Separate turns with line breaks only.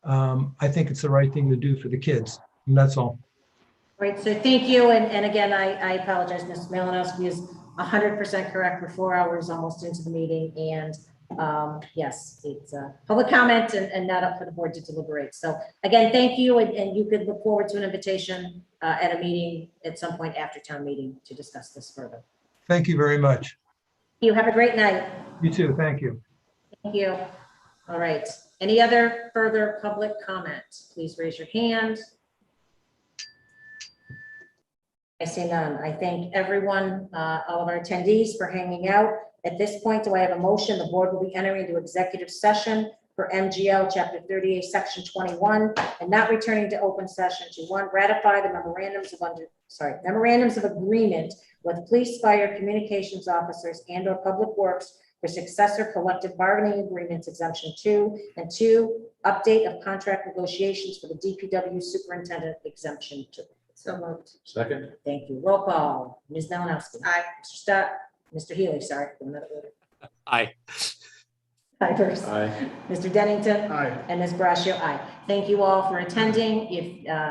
um, I think it's the right thing to do for the kids, and that's all.
Right, so thank you, and, and again, I, I apologize, Ms. Malinowski is hundred percent correct, we're four hours almost into the meeting, and, um, yes, it's a public comment and, and not up for the board to deliberate, so, again, thank you, and, and you could look forward to an invitation, uh, at a meeting, at some point after town meeting, to discuss this further.
Thank you very much.
You have a great night,
You too, thank you.
thank you. All right, any other further public comment, please raise your hand. I see none. I thank everyone, uh, all of our attendees for hanging out. At this point, do I have a motion? The board will be entering into executive session for MGL Chapter 38, Section 21, and not returning to open session to one, ratify the memorandums of under, sorry, memorandums of agreement with police, fire, communications officers, and/or public works for successor collective bargaining agreements exemption two, and two, update of contract negotiations for the DPW superintendent exemption two. So moved.
Second?
Thank you. Roll call. Ms. Malinowski. Aye. Mr. Stuck. Mr. Healy, sorry. I'm not aware.
Aye.
Aye first.
Aye.
Mr. Dennington
Aye.
and Ms. Brascio, aye. Thank you all for attending. If, uh,